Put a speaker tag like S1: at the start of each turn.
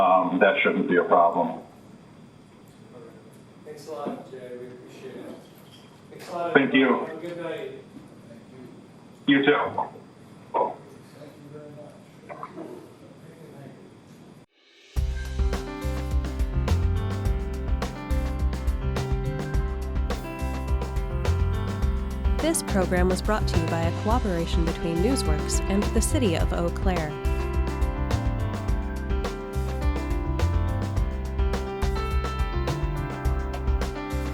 S1: um, that shouldn't be a problem.
S2: All right. Thanks a lot, Jay, we appreciate it. Thanks a lot.
S1: Thank you.
S2: everyone. Have a good night.
S1: You too.
S3: This program was brought to you by a cooperation between Newsworks and the City of Eau Claire.